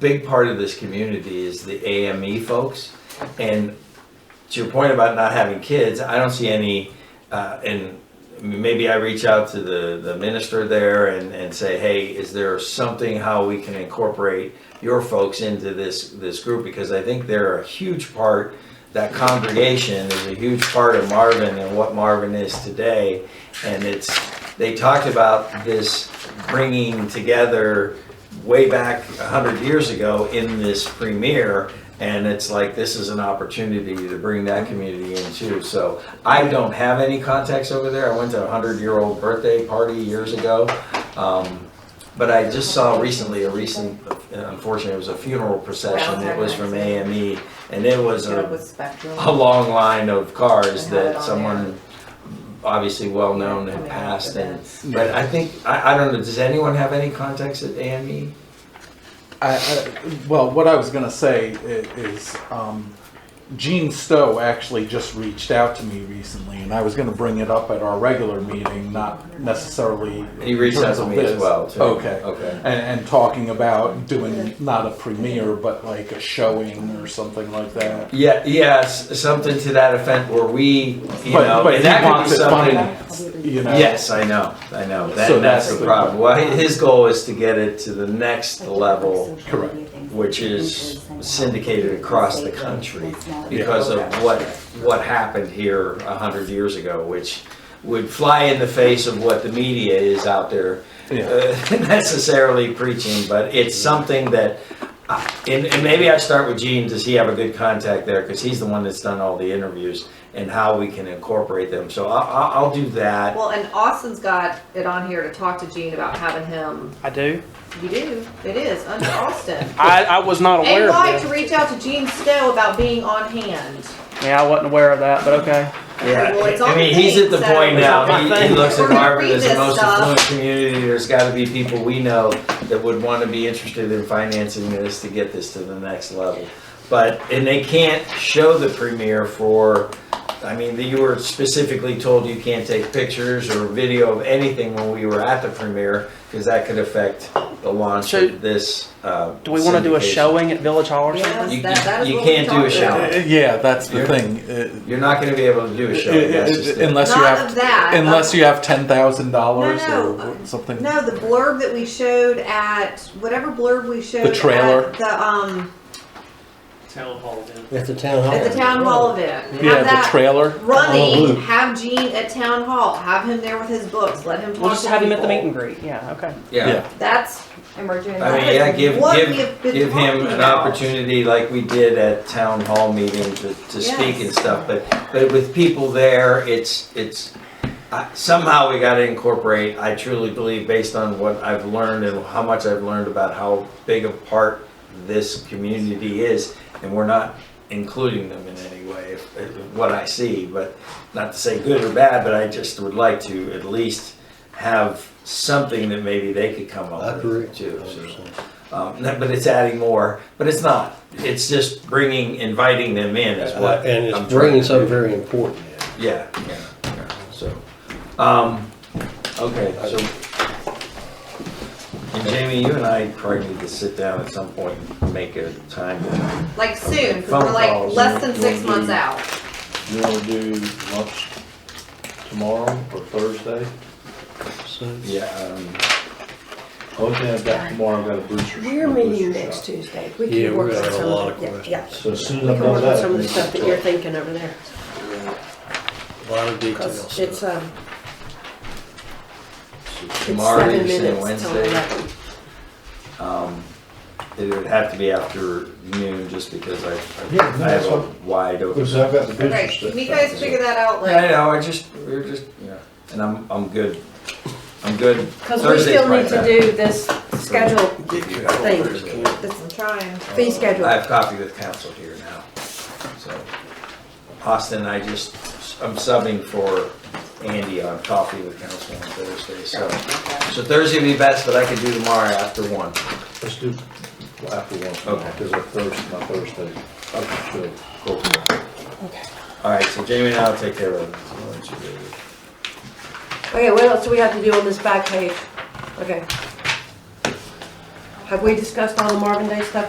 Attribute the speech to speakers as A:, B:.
A: big part of this community is the AME folks. And to your point about not having kids, I don't see any, uh, and maybe I reach out to the, the minister there and, and say, hey, is there something how we can incorporate your folks into this, this group? Because I think they're a huge part, that congregation is a huge part of Marvin and what Marvin is today. And it's, they talked about this bringing together way back a hundred years ago in this premiere. And it's like, this is an opportunity to bring that community in too. So I don't have any contacts over there. I went to a hundred year old birthday party years ago. Um, But I just saw recently, a recent, unfortunately, it was a funeral procession. It was from AME and it was
B: Get up
A: a
B: with Spectrum.
A: a long line of cars
B: And have it
A: that
B: on there.
A: someone obviously well-known
B: Coming
A: had
B: up
A: passed and,
B: events.
A: but I think, I, I don't know, does anyone have any contacts at E? AME?
C: I, I, well, what I was going to say i- is um, Gene Stowe actually just reached out to me recently, and I was going to bring it up at our regular meeting, not necessarily.
A: He reached
C: in
A: out
C: terms
A: to
C: of
A: me as
C: this.
A: well, too.
C: Okay.
A: Okay.
C: And, and talking about doing not a premiere, but like a showing or something like that.
A: Yeah, yes, something to that effect where we, you
C: but
A: know,
C: but
A: and
C: he
A: that could
C: wants
A: be
C: it
A: something.
C: financed, you know.
A: Yes, I know, I know,
C: So
A: that, that's
C: that's
A: the
C: the-
A: problem. Well, his goal is to get it to the next level
C: Correct.
A: which is syndicated across the country because of what, what happened here a hundred years ago, which would fly in the face of what the media is out there uh,
C: Yeah.
A: necessarily preaching, but it's something that, uh, and, and maybe I start with Gene, does he have a good contact there? Because he's the one that's done all the interviews and how we can incorporate them. So I, I, I'll do that.
B: Well, and Austin's got it on here to talk to Gene about having him.
D: I do.
B: You do. It is under Austin.
D: I, I was not
B: And
D: aware of
B: like to
D: that.
B: reach out to Gene Stowe about being on hand.
D: Yeah, I wasn't aware of that, but okay.
A: Yeah,
B: Well, it's on
A: I mean,
B: the
A: he's at the
B: thing, so-
A: point
D: It's
A: now,
D: on
A: he,
D: my
A: he
D: thing.
A: looks
B: We're
A: at
B: gonna
A: Marvin
B: read
A: as the
B: this
A: most
B: stuff.
A: affluent community, there's gotta be people we know that would wanna be interested in financing this to get this to the next level. But, and they can't show the premiere for, I mean, you were specifically told you can't take pictures or video of anything when we were at the premiere, cause that could affect the launch
D: So,
A: of this, uh.
D: Do we want to do a
A: syndication.
D: showing at Village Hall or something?
B: Yes,
A: You-
B: that, that is
A: you
B: what we
A: can't do a
B: talked about.
A: shower.
C: Uh, yeah, that's the
A: You're-
C: thing. Uh,
A: You're not gonna be able to do a showing, that's just it.
C: unless you
B: Not
C: have
B: of that,
C: unless
B: of-
C: you have ten thousand dollars
B: No, no,
C: or something.
B: No, the blurb that we showed at whatever blurb we showed.
C: The trailer.
B: At the um
D: Town hall then.
E: At the town hall.
B: at the town hall event. Have
C: yeah, the
B: that
C: trailer.
E: Oh,
B: running.
E: Luke.
B: Have Gene at town hall. Have him there with his books. Let him talk.
D: We'll just
B: to
D: have him at the
B: people.
D: meet and greet. Yeah, okay.
C: yeah.
B: That's
F: And we're doing
A: I
F: that.
A: mean, yeah, give,
B: What we have
A: give,
B: been
A: give him
B: talking
A: an
B: about.
A: opportunity like we did at town hall meeting to, to speak and
B: Yes.
A: stuff, but, but with people there, it's, it's, I- somehow we gotta incorporate, I truly believe, based on what I've learned and how much I've learned about how big a part this community is, and we're not including them in any way, if- if- what I see, but not to say good or bad, but I just would like to at least have something that maybe they could come
E: I
A: up
E: agree.
A: with too. so. Um, no, but it's adding more, but it's not. It's just bringing, inviting them in
G: Uh,
A: is what. I'm
E: And it's
A: trying
E: bringing
A: to do.
E: something very important in.
A: Yeah, yeah, yeah, so, um, okay, so. And Jamie, you and I probably need to sit down at some point and make a time.
B: like soon, 'cause
A: Phone
B: we're like
A: calls,
B: less than
G: you
B: six
G: wanna do-
B: months out.
G: You wanna do lunch tomorrow or Thursday?
E: So-
A: Yeah, um,
G: Only thing Oh, I've got tomorrow, I've got a booster.
H: We're
G: a
H: meeting
G: booster
H: next
G: shot.
H: Tuesday. We
E: Yeah,
H: can
E: we're
H: work
E: gonna
H: on
E: have a
H: some
E: lot of
H: of it. Yeah,
G: So as soon as
H: yeah. We
G: I've
H: can work
G: done
H: on
G: that.
H: some of
G: we
H: the stuff that
G: can
H: you're
G: talk.
H: thinking over there.
E: A lot of
H: 'Cause
E: details.
H: It's, um, it's
A: tomorrow,
H: seven
A: you're saying
H: minutes till
A: Wednesday,
H: eleven.
A: um, it would have to be after noon just because I, I
G: Yeah, no,
A: I have
G: that's
A: a
G: fine.
A: wide open.
G: Because I've got the booster
B: Okay,
G: shot.
B: can you guys figure that out?
A: Yeah, I
B: Like,
A: know, I just, we we're just, yeah, and I'm, I'm good. I'm good.
F: Because we still need to do this schedule
A: thing.
B: I'm trying.
H: Fee schedule.
A: I have coffee with council here now, so. Austin, I just, I'm subbing for Andy on coffee with council on Thursday, so. So Thursday would be best, but I could do tomorrow after one.
G: Let's do after one
A: Okay.
G: tomorrow, because I Thursday, my Thursday.
A: Okay,
G: show.
A: cool. All right, so Jamie and I'll take care of it.
H: Okay, what else do we have to do on this back page? Okay. Have we discussed all the Marvin Day stuff?